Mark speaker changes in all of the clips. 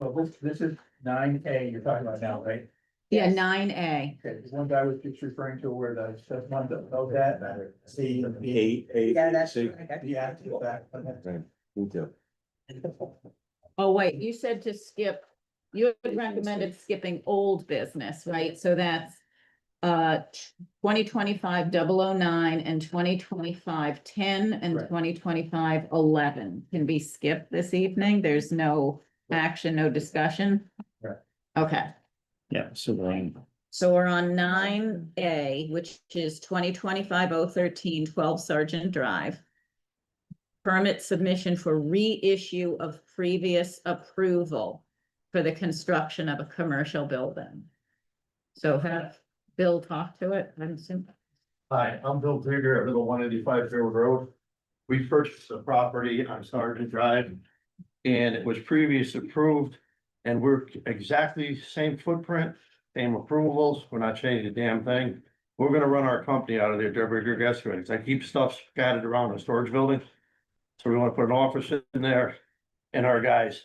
Speaker 1: was, this is nine A you're talking about now, right?
Speaker 2: Yeah,
Speaker 3: Yes.
Speaker 2: nine A.
Speaker 1: Okay, the ones I was just referring to where the, the one that, oh, that, the, the,
Speaker 4: Eight, eight,
Speaker 3: Yeah, that's.
Speaker 4: six.
Speaker 1: the active back.
Speaker 4: Me too.
Speaker 2: Oh,
Speaker 1: Mm-hmm.
Speaker 2: wait, you said to skip, you had recommended skipping old business, right? So that's uh, twenty twenty-five double oh nine and 2025-10 and
Speaker 1: Right.
Speaker 2: 2025-11 can be skipped this evening. There's no action, no discussion.
Speaker 1: Right.
Speaker 2: Okay,
Speaker 5: Yeah, so we're on
Speaker 2: so we're on nine A, which is 2025-013, 12 Sergeant Drive. Permit submission for reissue of previous approval for the construction of a commercial building. So have Bill talk to it, I'm assuming.
Speaker 6: Hi, I'm Bill Digger at Little One Eighty-Five Fairwood Road. We purchased the property on Sergeant Drive. And it was previous approved and we're exactly same footprint, same approvals. We're not changing a damn thing. We're gonna run our company out of there, Deborah Digger Excavating. I keep stuff scattered around the storage building. So we wanna put an office in there and our guys.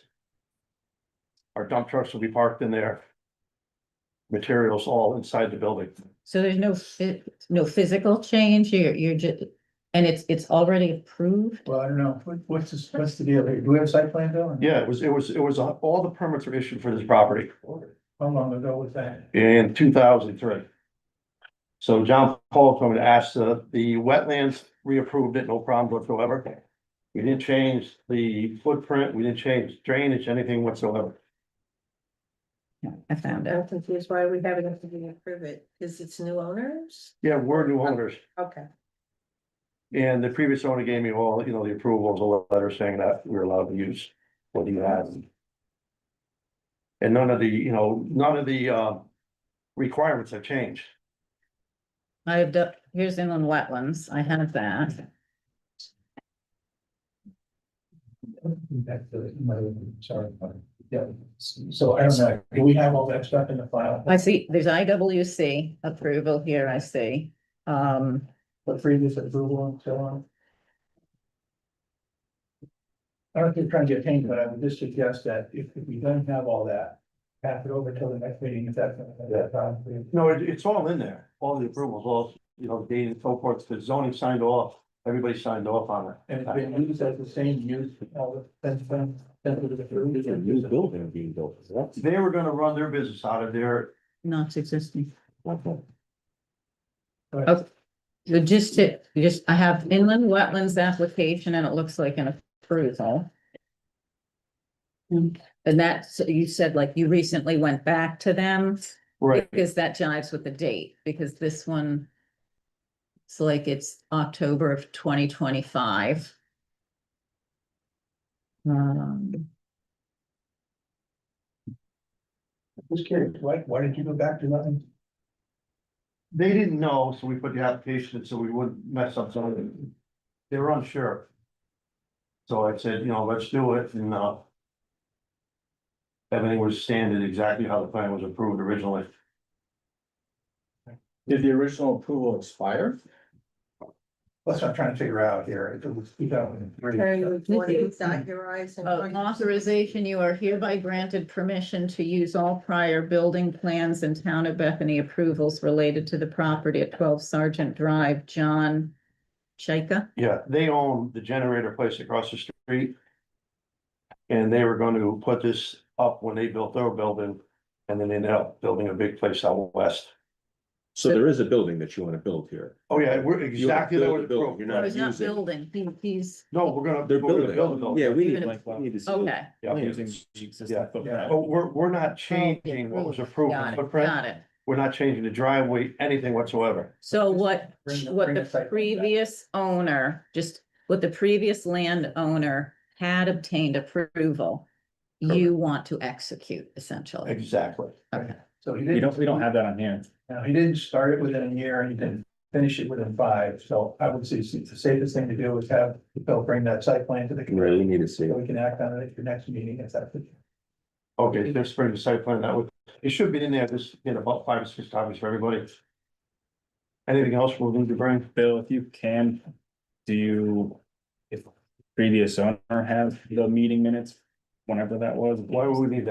Speaker 6: Our dump trucks will be parked in there. Materials all inside the building.
Speaker 2: So there's no phy- no physical change, you're, you're just, and it's, it's already approved?
Speaker 1: Well, I don't know, what, what's this, what's the deal here? Do we have site plan though?
Speaker 6: Yeah, it was, it was, it was, uh, all the permits were issued for this property
Speaker 1: How long ago was that?
Speaker 6: in two thousand three. So John Paul told me to ask the, the wetlands reapproved it, no problem whatsoever. We didn't change the footprint, we didn't change drainage, anything whatsoever.
Speaker 2: Yeah, I found it.
Speaker 3: I'm confused why we haven't approved it, because it's new owners?
Speaker 6: Yeah, we're new owners,
Speaker 3: Okay.
Speaker 6: and the previous owner gave me all, you know, the approvals, a letter saying that we're allowed to use what he has. And none of the, you know, none of the, uh, requirements have changed.
Speaker 2: I have, done- here's inland wetlands, I have that.
Speaker 1: Back to the- no, sorry, yeah, so I don't know, do we have all that stuff in the file?
Speaker 2: I see, there's IWC approval here, I see. Um,
Speaker 1: But previous approval and so on? I don't think trying to get paid, but I would just suggest that if, if we don't have all that, pass it over till the next meeting, if that's.
Speaker 6: No, it, it's all in there, all the approvals, all, you know, the date and so forth, the zoning signed off, everybody signed off on it.
Speaker 1: And it's been used as the same use, all the, that's been, that's been approved.
Speaker 4: There's a new building being built, so that's.
Speaker 6: They were gonna run their business out of there,
Speaker 2: not existing.
Speaker 1: Right.
Speaker 2: Okay. So just to, just, I have inland wetlands application and it looks like an approval. And that's, you said like you recently went back to them.
Speaker 6: right,
Speaker 2: Because that jives with the date, because this one. It's like it's October of twenty twenty-five. Um,
Speaker 1: Just curious, why, why did you go back to nothing?
Speaker 6: they didn't know, so we put the application in so we wouldn't mess up something. They were unsure. So I said, you know, let's do it, and, uh. Everything was standard exactly how the plan was approved originally,
Speaker 4: Did the original approval expire?
Speaker 1: That's what I'm trying to figure out here, it was two thousand and three.
Speaker 3: Terry, would you want to dot your i's and
Speaker 2: uh,
Speaker 3: cross your-
Speaker 2: authorization, you are hereby granted permission to use all prior building plans and town of Bethany approvals related to the property at twelve Sergeant Drive, John. Chaika,
Speaker 6: yeah, they own the generator place across the street. And they were gonna put this up when they built their building, and then they ended up building a big place out west.
Speaker 4: So there is a building that you wanna build here.
Speaker 6: Oh, yeah, we're exactly.
Speaker 4: build
Speaker 6: that
Speaker 4: the
Speaker 6: was
Speaker 4: building,
Speaker 6: approved.
Speaker 4: you're
Speaker 2: Oh,
Speaker 4: not
Speaker 2: he's not
Speaker 4: using-
Speaker 2: building, he, he's, oh,
Speaker 6: No, we're gonna,
Speaker 4: They're
Speaker 6: we're gonna
Speaker 4: building,
Speaker 6: build a building.
Speaker 4: yeah, we
Speaker 2: You're
Speaker 4: need,
Speaker 2: gonna-
Speaker 4: we need to. see-
Speaker 2: okay,
Speaker 6: Yeah,
Speaker 5: using the
Speaker 6: Yeah,
Speaker 5: existing
Speaker 1: yeah.
Speaker 6: But
Speaker 5: footprint.
Speaker 6: we're, we're not changing what was approved in
Speaker 2: Oh, got
Speaker 6: the
Speaker 2: it,
Speaker 6: footprint,
Speaker 2: got it.
Speaker 6: we're not changing the driveway, anything whatsoever.
Speaker 2: So what,
Speaker 1: Bring the-
Speaker 2: what
Speaker 1: bring the site
Speaker 2: the
Speaker 1: plan back.
Speaker 2: previous owner, just what the previous landowner had obtained approval, you want to execute essentially.
Speaker 6: Exactly.
Speaker 2: Okay.
Speaker 1: So he didn't.
Speaker 5: We don't, we don't have that on hand.
Speaker 1: Now, he didn't start it within a year and he didn't finish it within five, so I would say s- the safest thing to do is have Phil bring that site plan to the
Speaker 4: Really
Speaker 1: committee.
Speaker 4: need to see.
Speaker 1: So
Speaker 4: it.
Speaker 1: we can act on it at your next meeting if that's. the-
Speaker 6: Okay, there's spring site plan, that would, it should be in there, just in about five or six copies for everybody. Anything else we'll need to bring?
Speaker 5: Bill, if you can, do you, if previous owner have the meeting minutes, whenever that was?
Speaker 6: Why would we need that?